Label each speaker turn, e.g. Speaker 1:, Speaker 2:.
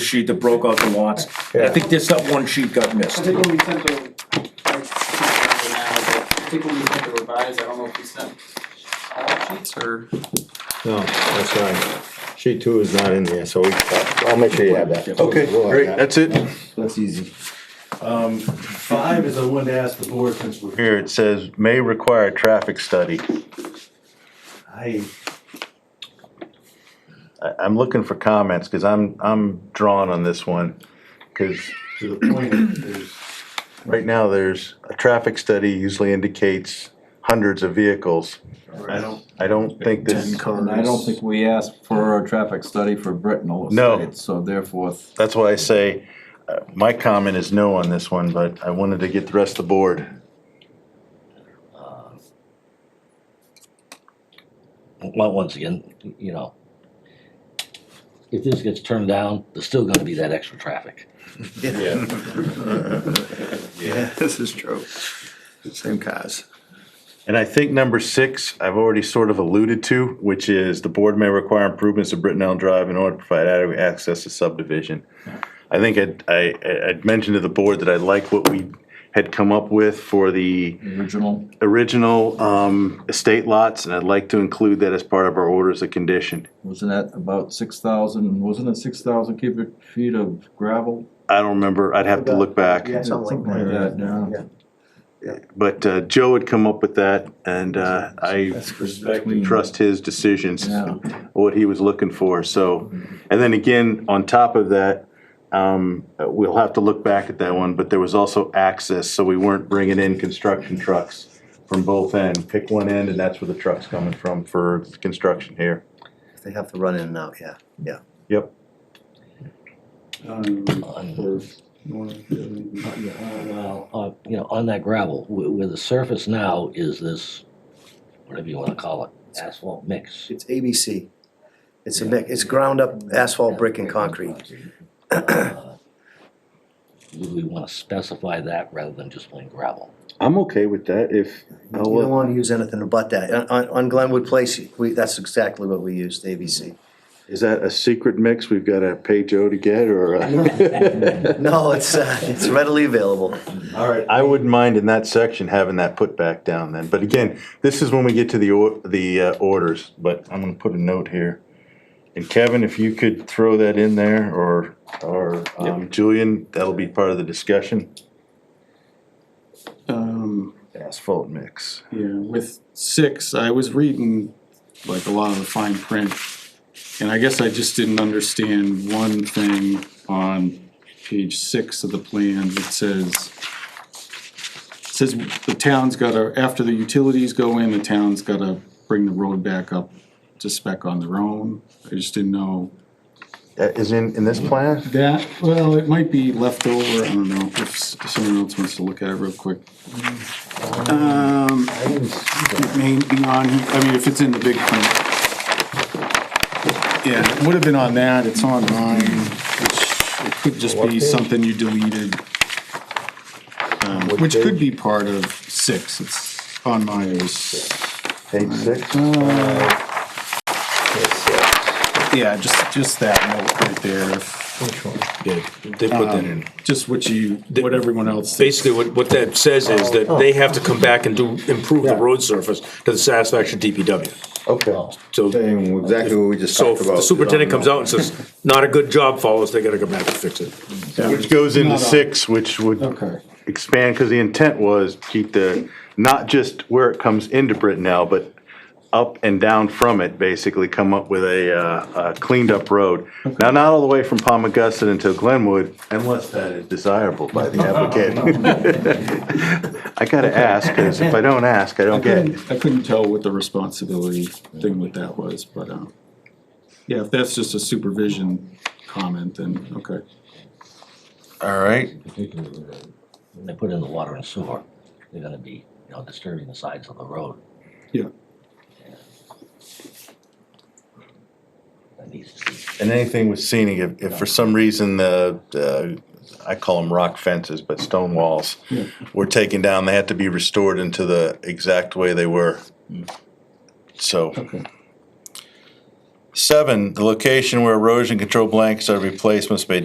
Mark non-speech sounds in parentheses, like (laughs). Speaker 1: sheet that broke out the lots. I think this, that one sheet got
Speaker 2: I
Speaker 1: missed.
Speaker 2: think when we sent the, I can't remember now, but I think when we sent the revise, I don't know if we sent all sheets or.
Speaker 3: No, that's right. Sheet two is not in there, so we, I'll make sure you have that.
Speaker 4: Okay,
Speaker 3: We'll have
Speaker 4: great,
Speaker 3: that.
Speaker 4: that's it.
Speaker 3: That's easy.
Speaker 5: Um, Five is I wanted to ask the board since we're,
Speaker 4: Here, it says, may require traffic study.
Speaker 5: I,
Speaker 4: I, I'm looking for comments, cause I'm, I'm drawn on this one. Cause
Speaker 5: to the point of, there's,
Speaker 4: right now, there's, a traffic study usually indicates hundreds of vehicles.
Speaker 5: I don't,
Speaker 4: I don't think this,
Speaker 6: And I don't think we asked for a traffic study for Brittenell
Speaker 4: No.
Speaker 6: Estates, so therefore,
Speaker 4: that's why I say, uh, my comment is no on this one, but I wanted to get the rest of the board.
Speaker 7: well, once again, you know, if this gets turned down, there's still gonna be that extra traffic.
Speaker 8: Yeah, this is true. Same cars.
Speaker 4: And I think number six, I've already sort of alluded to, which is the board may require improvements to Brittenell Drive in order to provide adequate access to subdivision. I think I'd, I, I- I'd mentioned to the board that I like what we had come up with for the
Speaker 6: the original,
Speaker 4: original, um, estate lots, and I'd like to include that as part of our orders of condition.
Speaker 6: wasn't that about six thousand, wasn't it six thousand cubic feet of gravel?
Speaker 4: I don't remember, I'd have to look back,
Speaker 5: yeah, something like that,
Speaker 6: yeah.
Speaker 5: yeah.
Speaker 4: but, uh, Joe had come up with that, and, uh, I
Speaker 5: Respect
Speaker 4: trust his decisions.
Speaker 6: Yeah,
Speaker 4: what he was looking for, so. And then again, on top of that, um, we'll have to look back at that one, but there was also access, so we weren't bringing in construction trucks from both end. Pick one end and that's where the truck's coming from for construction here.
Speaker 3: They have to run in and out, yeah.
Speaker 4: Yep.
Speaker 2: Um,
Speaker 7: On,
Speaker 2: or, or-
Speaker 7: uh, well, on- you know, on that gravel, where, where the surface now is this, whatever you wanna call it, asphalt mix.
Speaker 9: It's ABC. It's a mix, it's ground up asphalt, brick and concrete.
Speaker 7: Uh, Would we wanna specify that rather than just plain gravel?
Speaker 4: I'm okay with that if,
Speaker 9: You don't wanna use anything but that. On- On, on Glenwood Place, we, that's exactly what we used, ABC.
Speaker 4: is that a secret mix we've gotta pay Joe to get or? (laughs)
Speaker 9: (laughs) No, it's, uh, it's readily available.
Speaker 5: All right,
Speaker 4: I wouldn't mind in that section having that put back down then, but again, this is when we get to the or, the uh, orders, but I'm gonna put a note here. And Kevin, if you could throw that in there, or, or um, Julian, that'll be part of the discussion,
Speaker 8: Um,
Speaker 4: asphalt mix.
Speaker 8: yeah, with six, I was reading like a lot of the fine print. And I guess I just didn't understand one thing on page six of the plan that says. Says the town's gotta, after the utilities go in, the town's gotta bring the road back up to spec on their own. I just didn't know.
Speaker 4: That Uh, is in, in this plan?
Speaker 8: That, well, it might be left over, I don't know, if s- someone else wants to look at it real quick. Um, it may be on, I mean, if it's in the big print. Yeah, it would have been on that, it's on mine, which, it could just be something you deleted. Um, which could be part of six, it's on mine, it was,
Speaker 4: Page six?
Speaker 8: yeah, just, just that note right there, if,
Speaker 1: Yeah, they put that in.
Speaker 8: just what you, what everyone else. thinks.
Speaker 1: Uh, Basically, what, what that says is that
Speaker 3: Oh.
Speaker 1: they have to come back and do, improve the road surface to the satisfaction of DPW.
Speaker 3: Okay.
Speaker 1: So,
Speaker 3: Same, exactly what we just
Speaker 1: so
Speaker 3: talked
Speaker 1: if
Speaker 3: about.
Speaker 1: the superintendent comes out and says, not a good job, follows, they gotta come back and fix it.
Speaker 4: Which goes into
Speaker 8: Not on.
Speaker 4: six, which would
Speaker 8: Okay.
Speaker 4: expand, because the intent was keep the, not just where it comes into Brittenell, but up and down from it, basically come up with a, uh, a cleaned up road. Now, not all the way from Palm Augusta until Glenwood, unless that is desirable by
Speaker 8: (laughs)
Speaker 4: the applicant. (laughs) I gotta ask, because if I don't ask, I don't get.
Speaker 8: I couldn't tell what the responsibility thing with that was, but, um, yeah, if that's just a supervision comment, then, okay.
Speaker 4: All right,
Speaker 7: When they put in the water and sewer, they're gonna be, you know, disturbing the sides of the road.
Speaker 8: Yeah.
Speaker 7: That needs to be
Speaker 4: and anything with scenic, if, if for some reason the, uh, I call them rock fences, but stone walls
Speaker 8: Yeah.
Speaker 4: were taken down, they had to be restored into the exact way they were. So,
Speaker 8: Okay.
Speaker 4: seven, the location where erosion control blankets are replaced must be